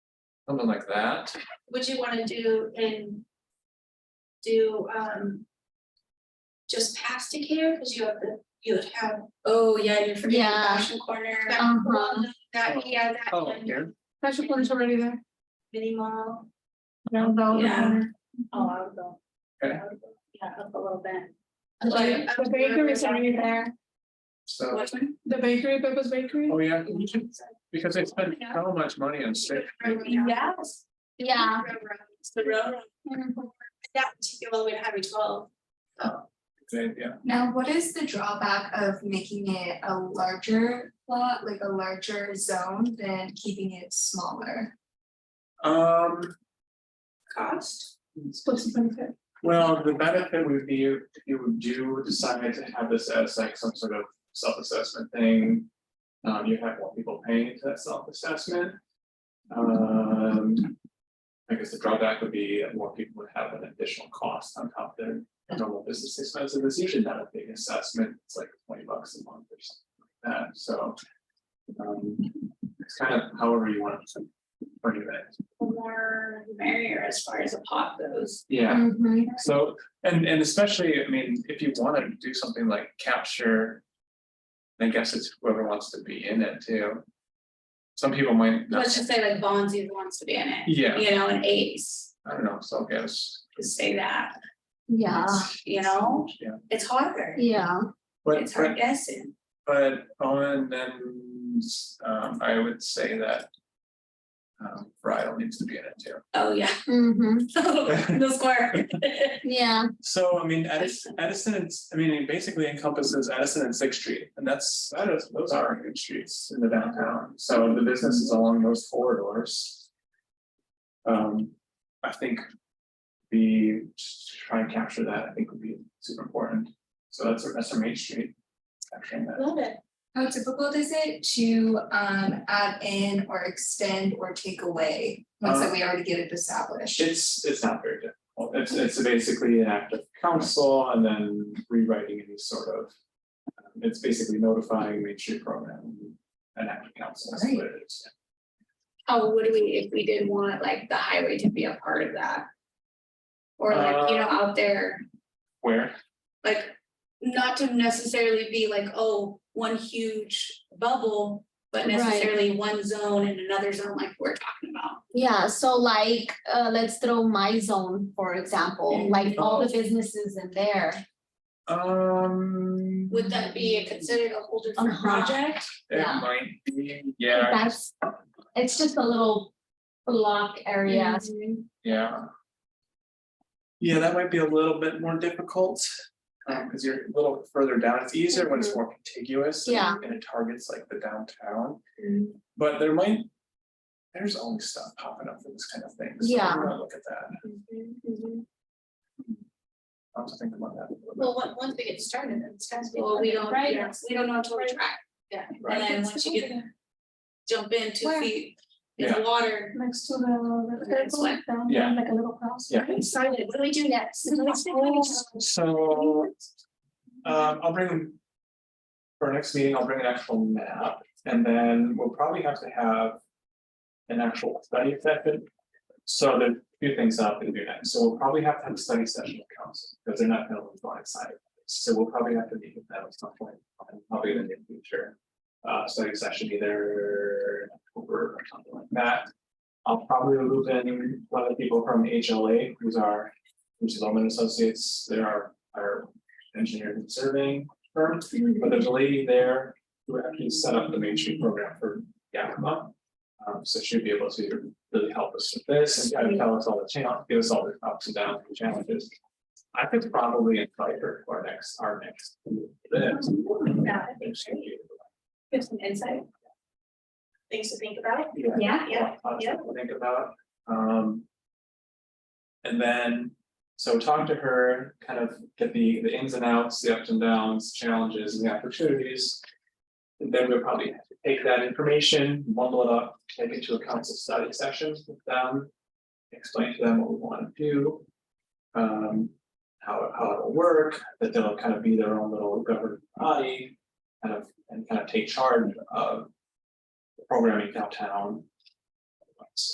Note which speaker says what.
Speaker 1: something like that.
Speaker 2: would you wanna do in? Do um. Just past Decatur, cause you have the, you would have,
Speaker 3: Oh, yeah, you're forgetting the
Speaker 4: Yeah.
Speaker 3: fashion corner.
Speaker 2: that
Speaker 4: Uh-huh.
Speaker 2: one, that, yeah, that
Speaker 1: Oh,
Speaker 2: one,
Speaker 1: here,
Speaker 5: Special corner's already there.
Speaker 2: mini mall.
Speaker 5: Round Velvet
Speaker 3: Yeah.
Speaker 5: Corner.
Speaker 3: Oh, I would go.
Speaker 1: Okay.
Speaker 3: I would go, Yeah, up a little bit.
Speaker 2: Like,
Speaker 5: The bakery's already there.
Speaker 1: so,
Speaker 3: one?
Speaker 5: The bakery, Bubba's Bakery.
Speaker 1: oh yeah, we should- because they spent so much money on steak.
Speaker 3: Yes, Mm-hmm.
Speaker 4: Yeah.
Speaker 2: Railroad.
Speaker 3: it's the railroad.
Speaker 2: That particular way to Highway twelve,
Speaker 1: They- Yeah,
Speaker 6: Now, what is the drawback of making it a larger plot, like a larger zone than keeping it smaller?
Speaker 1: um,
Speaker 3: Cost?
Speaker 5: Splits the benefit.
Speaker 1: well, the benefit would be if you do decide to have this as like some sort of self-assessment thing. Um, you have more people paying into that self-assessment. Um, I guess the drawback would be that more people would have an additional cost on top of their normal business expenses. It's usually not a big assessment. It's like twenty bucks a month or something like that, so. Um, it's kind of however you want to bring it.
Speaker 3: The More the merrier as far as a pot goes. Mm-hmm.
Speaker 1: Yeah.
Speaker 6: Mhm.
Speaker 1: So, and and especially, I mean, if you wanna do something like capture. I guess it's whoever wants to be in it too. Some people might not,
Speaker 3: Let's just say like Bonzi wants to be in it.
Speaker 1: Yeah.
Speaker 3: You know, and Ace,
Speaker 1: I don't know, so I guess,
Speaker 3: just say that,
Speaker 4: Yeah,
Speaker 3: you know,
Speaker 1: yeah,
Speaker 3: it's harder.
Speaker 4: yeah.
Speaker 1: but
Speaker 3: It's hard
Speaker 1: but
Speaker 3: guessing.
Speaker 1: but on then, um, I would say that. Um, bridal needs to be in it too.
Speaker 3: Oh, yeah.
Speaker 4: Mm-hmm,
Speaker 3: The square.
Speaker 4: yeah,
Speaker 1: So I mean, Edison, Edison, it's- I mean, it basically encompasses Edison and Sixth Street, and that's, that is, those are good streets in the downtown, so the business is along those corridors. Um, I think the, just to try and capture that, I think would be super important, so that's, that's our main street. Capturing that,
Speaker 3: Love it.
Speaker 6: How difficult is it to um add in or extend or take away once that we already get it established?
Speaker 1: it's, it's not very difficult, it's, it's basically an act of council and then rewriting any sort of. um, It's basically notifying Main Street Program, an act of council, that's what it is.
Speaker 3: How would we, if we did want like the highway to be a part of that? Or like, you know, out there,
Speaker 1: Where?
Speaker 3: like, not to necessarily be like, oh, one huge bubble. But
Speaker 4: Right.
Speaker 3: necessarily one zone and another zone like we're talking about.
Speaker 4: yeah, so like, uh, let's throw my zone, for example, like all the businesses in there.
Speaker 1: Um.
Speaker 3: Would that be a- considered a whole different
Speaker 4: Uh-huh.
Speaker 3: project?
Speaker 1: It
Speaker 4: yeah.
Speaker 1: might be, yeah,
Speaker 4: That's, it's just a little block
Speaker 2: Mm-hmm.
Speaker 4: area,
Speaker 3: Mm-hmm.
Speaker 1: yeah. Yeah, that might be a little bit more difficult, um, cause you're a little further down, it's easier when it's more contiguous. and-
Speaker 4: Mm-hmm. Yeah. Mm-hmm.
Speaker 1: And it targets like the downtown, but there might. There's always stuff popping up for this kind of thing, so we
Speaker 4: Yeah.
Speaker 1: wanna look at that, I'll have to think about that. a little bit.
Speaker 2: Mm-hmm. well, once, once we get started, then it's gonna be.
Speaker 3: Well, we don't,
Speaker 2: Right.
Speaker 3: yeah, we don't know until we try.
Speaker 2: Yeah.
Speaker 3: And then once you get, jump in two
Speaker 5: Where?
Speaker 3: feet
Speaker 1: Yeah.
Speaker 3: in water,
Speaker 5: Next to the.
Speaker 3: That's what-
Speaker 5: Down,
Speaker 1: Yeah.
Speaker 5: Like a little house.
Speaker 1: Yeah.
Speaker 2: Excited, what do we do next?
Speaker 1: So, um, I'll bring. For our next meeting, I'll bring an actual map, and then we'll probably have to have. An actual study session. So there are a few things I'll have to do next, so we'll probably have to have a study session with council, because they're not gonna be blindsided. So we'll probably have to meet with them at some point, probably in the near future. Uh, study session either over or something like that. I'll probably loop in one of the people from HLA, who's our, who's Loman Associates, they're our, our engineering and surveying firm. But there's a lady there who actually set up the Main Street program for Yakima. Um, so she'd be able to really help us with this and kind of tell us all the channel, give us all the ups and downs and challenges. I could probably invite her for our next, our next.
Speaker 3: Yeah. give some insight.
Speaker 2: Things to think about.
Speaker 1: Yeah.
Speaker 3: Yeah, yeah,
Speaker 1: lot of
Speaker 3: yeah.
Speaker 1: stuff to Think about, um. And then, so talk to her, kind of get the, the ins and outs, the ups and downs, challenges and the opportunities. And then we'll probably take that information, bundle it up, take it to a council study session with them. Explain to them what we want to do. Um, how, how it'll work, that they'll kind of be their own little governing body. Kind of, and kind of take charge of programming downtown